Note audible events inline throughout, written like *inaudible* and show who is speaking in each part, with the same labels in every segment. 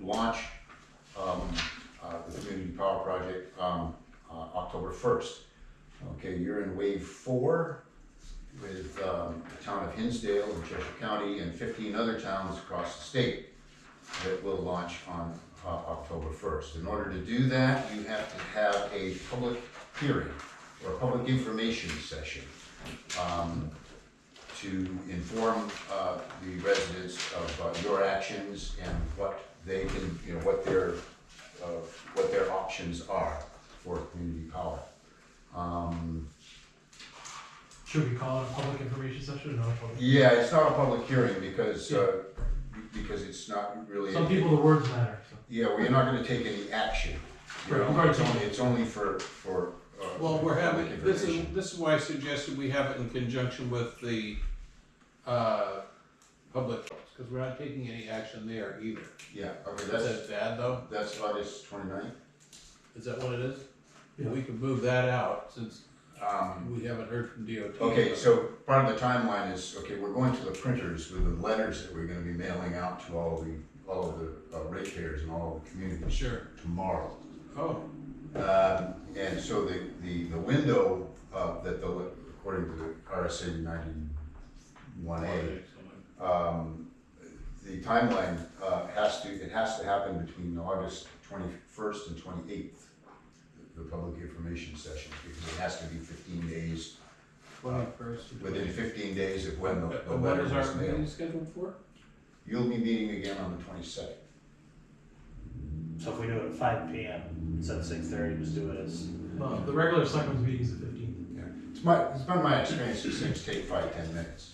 Speaker 1: launch, um, uh, the community power project, um, uh, October first. Okay, you're in wave four with, um, the town of Hinsdale and Cheshire County and fifteen other towns across the state that will launch on, uh, October first. In order to do that, you have to have a public hearing or a public information session. Um, to inform uh, the residents of uh, your actions and what they can, you know, what their, uh, what their options are for community power. Um,
Speaker 2: Should we call it a public information session or not a public?
Speaker 1: Yeah, it's not a public hearing because, uh, because it's not really.
Speaker 2: Some people, the words matter, so.
Speaker 1: Yeah, well, you're not gonna take any action. you know,
Speaker 2: Right.
Speaker 1: It's only, it's only for, for. uh,
Speaker 3: Well, we're having,
Speaker 1: public
Speaker 3: this is,
Speaker 1: information.
Speaker 3: this is why I suggested we have it in conjunction with the, uh, public, because we're not taking any action there either.
Speaker 1: Yeah, okay,
Speaker 3: Is
Speaker 1: that's,
Speaker 3: that bad though?
Speaker 1: that's August twenty-ninth.
Speaker 3: Is that what it is?
Speaker 2: Yeah.
Speaker 3: We could move that out since
Speaker 1: Um,
Speaker 3: we haven't heard from DOT.
Speaker 1: Okay, so part of the timeline is, okay, we're going to the printers with the letters that we're gonna be mailing out to all the, all of the uh, ratepayers and all of the communities
Speaker 3: Sure.
Speaker 1: tomorrow.
Speaker 3: Oh,
Speaker 1: Um, and so the, the, the window, uh, that the, according to the RSA ninety-one A, um, the timeline, uh, has to, it has to happen between August twenty-first and twenty-eighth, the public information session, because it has to be fifteen days
Speaker 3: twenty-first.
Speaker 1: within fifteen days of when the, the
Speaker 3: And what
Speaker 1: letter
Speaker 3: is our
Speaker 1: was
Speaker 3: meeting
Speaker 1: mailed.
Speaker 3: scheduled for?
Speaker 1: You'll be meeting again on the twenty-second.
Speaker 4: So if we do it at five PM instead of six thirty, just do it as.
Speaker 2: Uh, The regular selectmen's meeting is the fifteenth.
Speaker 1: It's my, it's been my experience that things take five, ten minutes.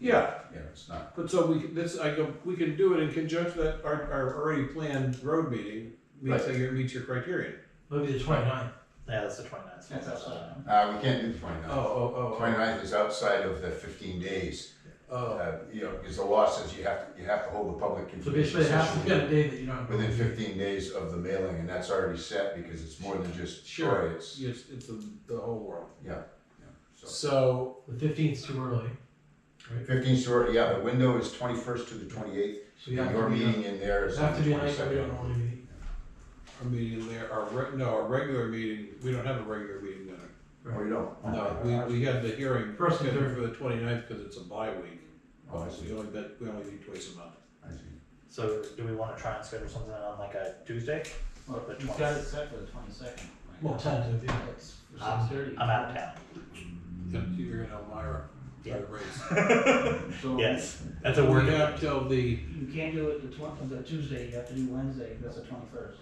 Speaker 3: Yeah,
Speaker 1: Yeah, it's not,
Speaker 3: but so we, this, I go, we can do it in conjunction with our, our already planned road meeting, meets,
Speaker 1: Right.
Speaker 3: your- meets your criteria.
Speaker 2: Maybe the twenty-ninth.
Speaker 4: Yeah, that's the 29th.
Speaker 5: That's outside.
Speaker 1: uh, we can't do the
Speaker 3: Oh,
Speaker 1: 29th.
Speaker 3: oh, oh,
Speaker 1: 29th
Speaker 3: oh,
Speaker 1: is outside of the fifteen days,
Speaker 3: oh,
Speaker 1: uh, you know, because the law says you have, to you have to hold a public
Speaker 2: So basically,
Speaker 1: information
Speaker 2: it has to be on a
Speaker 1: session
Speaker 2: day that you don't have.
Speaker 1: within fifteen days of the mailing, and that's already set because it's more than just
Speaker 3: Sure.
Speaker 1: Troy, it's,
Speaker 3: yes, it's the, the whole world.
Speaker 1: yeah, yeah, so.
Speaker 3: So,
Speaker 2: The fifteenth's too early,
Speaker 1: Fifteenth, yeah, the window is twenty-first to the twenty-eighth,
Speaker 2: so you have
Speaker 1: your
Speaker 2: to be,
Speaker 1: meeting in there
Speaker 2: it
Speaker 1: is
Speaker 2: have
Speaker 1: on
Speaker 2: to
Speaker 1: the
Speaker 2: be a night that we don't
Speaker 1: twenty-second.
Speaker 2: normally meet.
Speaker 3: our meeting there, our, re- no, our regular meeting, we don't have a regular meeting then.
Speaker 1: Oh, you don't?
Speaker 3: No, we, we had the hearing
Speaker 2: First and third.
Speaker 3: scheduled for the twenty-ninth, cause it's a bye week.
Speaker 1: Oh, I
Speaker 3: We
Speaker 1: see,
Speaker 3: only, bet- we only meet twice a month.
Speaker 1: I see.
Speaker 4: So do we wanna try and schedule something on like a Tuesday?
Speaker 5: Well,
Speaker 4: The
Speaker 5: you've got it set for the twenty-second.
Speaker 2: Well, tentative, yeah.
Speaker 5: It's for six thirty.
Speaker 4: I'm out of town. Mm-hmm.
Speaker 3: You're in Elmira, by the
Speaker 4: *laughs*
Speaker 3: race.
Speaker 5: So
Speaker 4: Yes, that's a work.
Speaker 3: We have till the,
Speaker 5: You can't do it the twen- the Tuesday, you have to do Wednesday, that's the twenty-first.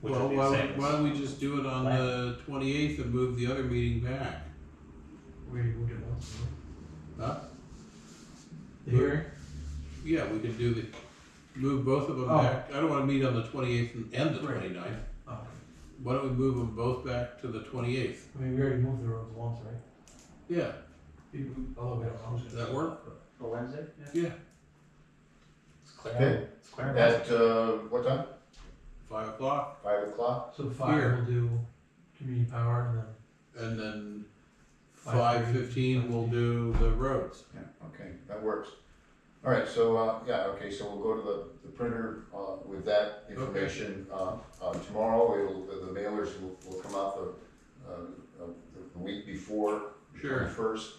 Speaker 4: Which
Speaker 3: well,
Speaker 4: would be
Speaker 3: why,
Speaker 4: the
Speaker 3: don't-
Speaker 4: same as-
Speaker 3: why don't we just do it on
Speaker 4: Plan.
Speaker 3: the twenty-eighth and move the other meeting back?
Speaker 2: We moved it once, so.
Speaker 3: Huh?
Speaker 2: The hearing,
Speaker 3: Yeah, we could do the, move both of them
Speaker 2: Oh.
Speaker 3: back. I don't wanna meet on the twenty-eighth and and the
Speaker 2: Right.
Speaker 3: twenty-ninth.
Speaker 2: oh,
Speaker 3: Why don't we move them both back to the twenty-eighth?
Speaker 2: I mean, we already moved the roads once, right?
Speaker 3: Yeah,
Speaker 2: We- we- Although we don't. know.
Speaker 3: does that work?
Speaker 5: For Wednesday?
Speaker 3: Yeah,
Speaker 4: It's clear.
Speaker 1: Okay.
Speaker 4: It's clear.
Speaker 1: At, uh, what time?
Speaker 3: five o'clock,
Speaker 1: Five o'clock?
Speaker 2: So five
Speaker 3: Here.
Speaker 2: will do community power and then
Speaker 3: and then
Speaker 2: Five
Speaker 3: five
Speaker 2: thirty.
Speaker 3: fifteen, we'll do the roads.
Speaker 1: Yeah, okay, that works. All right, so, uh, yeah, okay, so we'll go to the, the printer, uh, with that information, uh, uh, tomorrow, it'll, the the mailers will, will come out the, uh, uh, the- the week before.
Speaker 3: Sure.
Speaker 1: First,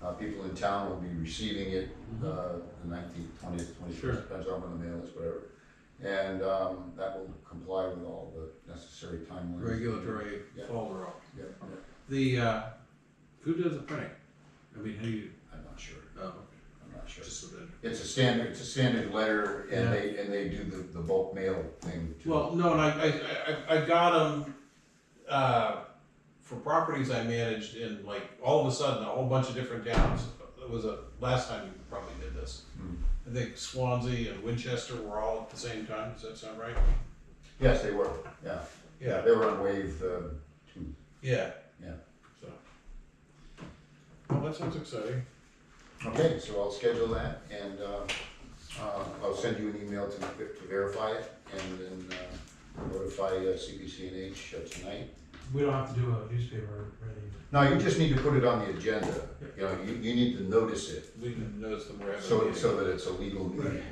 Speaker 1: uh, people in town will be receiving it, uh, the nineteenth, twentieth,
Speaker 3: Mm-hmm. Sure.
Speaker 1: twenty-first, depends on when the mail is, whatever. And, um, that will comply with all the necessary timelines.
Speaker 3: Regulatory
Speaker 1: Yeah.
Speaker 3: follow up.
Speaker 1: Yeah, yeah,
Speaker 3: The, uh, who does the printing? I mean, who you,
Speaker 1: I'm not sure,
Speaker 3: oh,
Speaker 1: I'm not sure.
Speaker 3: just so that.
Speaker 1: It's a standard, it's a standard letter,
Speaker 2: Yeah.
Speaker 1: and they, and they do the, the bulk mail thing too.
Speaker 3: Well, no, and I, I, I- I, I got them, uh, for properties I managed in like, all of a sudden, a whole bunch of different towns. It was a, last time you probably did this.
Speaker 1: Hmm.
Speaker 3: I think Swansea and Winchester were all at the same time, does that sound right?
Speaker 1: Yes, they were, yeah,
Speaker 3: Yeah.
Speaker 1: they were on wave, uh, two,
Speaker 3: Yeah.
Speaker 1: Yeah.
Speaker 3: So. Well, that sounds exciting.
Speaker 1: okay, so I'll schedule that, and, uh, uh, I'll send you an email to, to verify it, and then, uh, notify uh, CPCNH uh, tonight.
Speaker 2: we don't have to do a newspaper or anything.
Speaker 1: No, you just need to put it on the agenda, you know, you, you need to notice it,
Speaker 3: We didn't notice them were having a
Speaker 1: so,
Speaker 3: meeting.
Speaker 1: so that it's a legal meeting.